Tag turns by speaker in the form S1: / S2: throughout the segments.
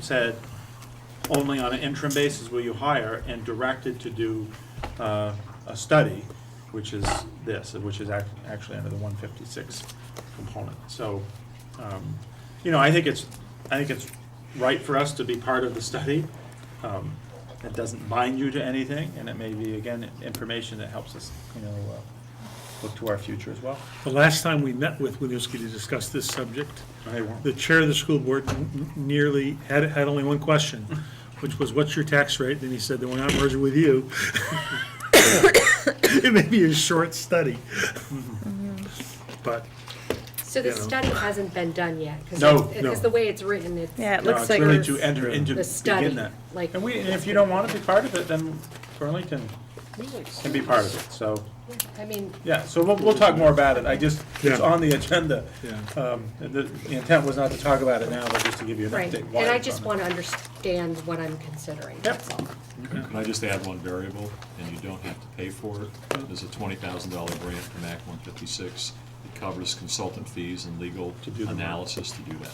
S1: said, only on an interim basis will you hire, and directed to do uh, a study, which is this, which is ac- actually under the 156 component. So, um, you know, I think it's, I think it's right for us to be part of the study. Um, It doesn't bind you to anything, and it may be, again, information that helps us, you know, uh, look to our future as well.
S2: The last time we met with Winooski to discuss this subject,
S1: Hey, Warren.
S2: the chair of the school board n- n- nearly had, had only one question, which was, what's your tax rate? And he said, then we're not merging with you. It may be a short study.
S3: Mm-hmm.
S2: But,
S4: So the
S2: you know.
S4: study hasn't been done yet? 'cause
S1: No,
S4: it's-
S2: no.
S4: Because the way it's written, it's.
S3: Yeah, it
S1: No,
S3: looks
S1: it's
S3: like.
S1: really
S3: it's-
S1: to enter into,
S4: The study,
S1: begin that.
S4: like-
S1: And we, and if you don't want to be part of it, then Burlington can be part of it, so,
S4: I mean,
S1: yeah, so we'll, we'll talk more about it, I just, it's
S2: Yeah.
S1: on the agenda.
S2: Yeah.
S1: Um, the, the intent was not to talk about it now, but just to give you an
S4: right,
S1: update.
S4: and
S1: why
S4: I
S1: it's
S4: just
S1: on
S4: want to understand what I'm considering, that's all.
S5: Can I just add one variable, and you don't have to pay for it? There's a twenty thousand dollar grant from Act one fifty-six. It covers consultant fees and legal
S1: To do the work.
S5: analysis to do that.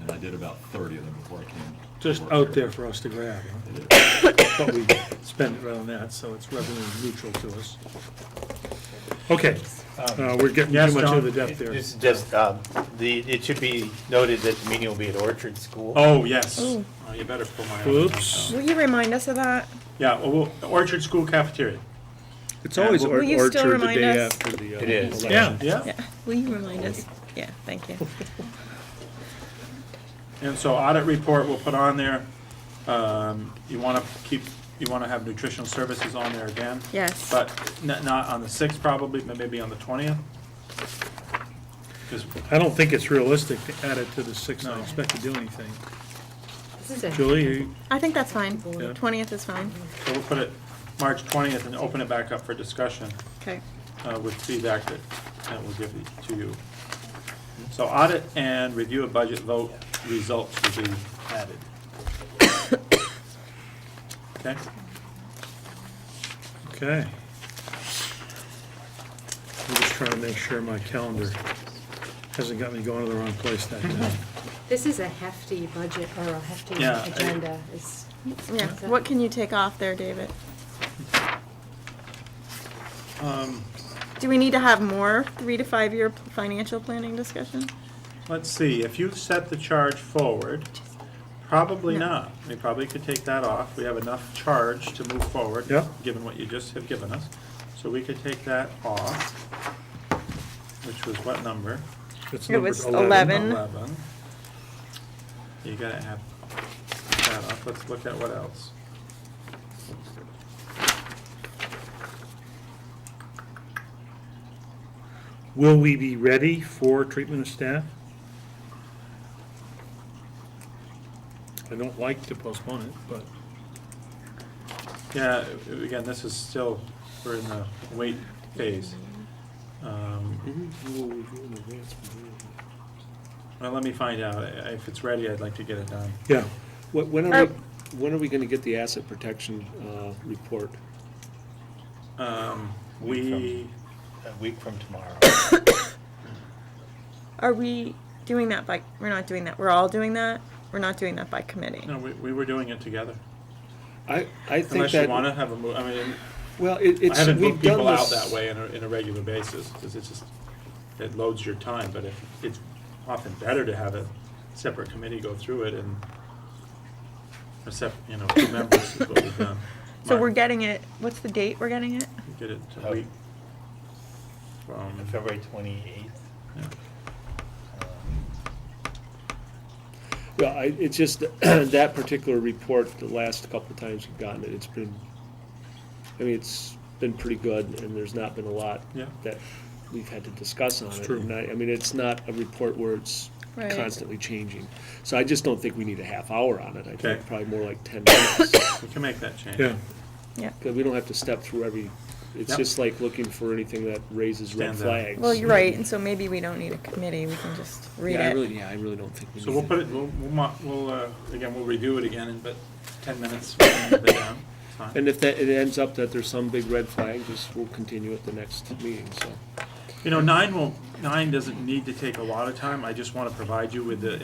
S5: And I did about thirty of them before I came. to
S2: just
S5: work
S2: out there
S5: here.
S2: for us to grab, huh?
S5: It is.
S2: but we spend it right on that, so it's revenue neutral to us. Okay, uh, we're getting
S1: Yes,
S2: too much
S1: John?
S2: of the depth there.
S6: This is just, um, the, it should be noted that the meeting will be at Orchard School.
S1: Oh, yes, oh,
S3: Ooh.
S1: you better pull my. out.
S2: Whoops.
S3: Will you remind us of that?
S1: Yeah, well, we'll- Orchard School cafeteria,
S7: It's always
S3: Will
S7: Or-
S3: you still
S7: Orchard the
S3: remind
S7: day
S3: us?
S7: after the. uh,
S6: It is.
S7: election.
S2: Yeah,
S1: yeah,
S3: Yeah, will you remind us? Yeah, thank you.
S1: and so audit report we'll put on there. Um, you want to keep, you want to have nutritional services on there again.
S3: Yes.
S1: But not, not on the sixth probably, but maybe on the twentieth. Because,
S2: I don't think it's realistic to add it to the six, I expect to do anything.
S4: This is it.
S2: Julie, you-
S3: I think that's fine.
S2: Yeah.
S3: Twentieth is fine.
S1: so we'll put it March twentieth and open it back up for discussion,
S3: Okay.
S1: uh, with feedback that, that we'll give it to you. So audit and review of budget vote results will be added. Okay,
S2: okay. I'm just trying to make sure my calendar hasn't got me going to the wrong place that day.
S4: This is a hefty budget, or a hefty
S1: Yeah, I-
S4: agenda, is,
S3: Yeah.
S4: Okay.
S3: What can you take off there, David?
S1: um,
S3: Do we need to have more three to five year p- financial planning discussion?
S1: let's see, if you set the charge forward, probably not. We probably could take that off. We have enough charge to move forward.
S2: Yeah.
S1: Given what you just have given us. So we could take that off, which was what number?
S2: It's
S3: It
S2: numbered
S3: was 11.
S1: Eleven. You gotta have that off. Let's look at what else.
S2: Will we be ready for treatment of staff? I don't like to postpone it, but
S1: Yeah, a- again, this is still, we're in the wait phase. Um, Well, let me find out. I- If it's ready, I'd like to get it done.
S2: yeah,
S7: Wh- When are
S3: Uh,
S7: we, when are we going to get the asset protection uh, report?
S1: Um, We,
S6: A week from tomorrow.
S3: Are we doing that by? We're not doing that. We're all doing that. We're not doing that by committee.
S1: no, we we were doing it together.
S7: I, I think
S1: Unless you
S7: that,
S1: want to have a, mo- I mean,
S7: well, it-
S1: I
S7: it's,
S1: haven't
S7: we've
S1: booked
S7: done
S1: people out
S7: this.
S1: that way on a, in a regular basis, because it's just, it loads your time, but if, it's often better to have a separate committee go through it and, a sep, you know, two members is what we've done.
S3: So we're
S1: Martin,
S3: getting it. What's the date we're getting it?
S1: Get it to
S6: Oh.
S1: week from,
S6: February twenty-eighth.
S1: yeah.
S7: Well, I, it's just, that particular report, the last couple of times we've gotten it, it's been, I mean, it's been pretty good, and there's not been a lot
S1: Yeah.
S7: that we've had to discuss on it.
S2: true.
S7: And I, I mean, it's not a report where it's
S3: Right.
S7: constantly changing. So I just don't think we need a half hour on it. I
S1: Okay.
S7: think probably more like ten minutes.
S1: we can make that change.
S2: yeah.
S3: Yeah.
S7: Because we don't have to step through every, it's
S1: Yep.
S7: just like looking for anything that raises
S1: Stand
S7: red
S1: out.
S7: flags.
S3: Well, you're right, and so maybe we don't need a committee. We can just read
S7: Yeah, I
S3: it.
S7: really, yeah, I really don't think we need.
S1: So we'll
S7: it.
S1: put it, we'll, we'll, mo- we'll, uh, again, we'll review it again in, but ten minutes, we'll move it down, it's fine.
S7: And if that, it ends up that there's some big red flag, just we'll continue at the next meeting, so.
S1: You know, nine will, nine doesn't need to take a lot of time, I just want to provide you with the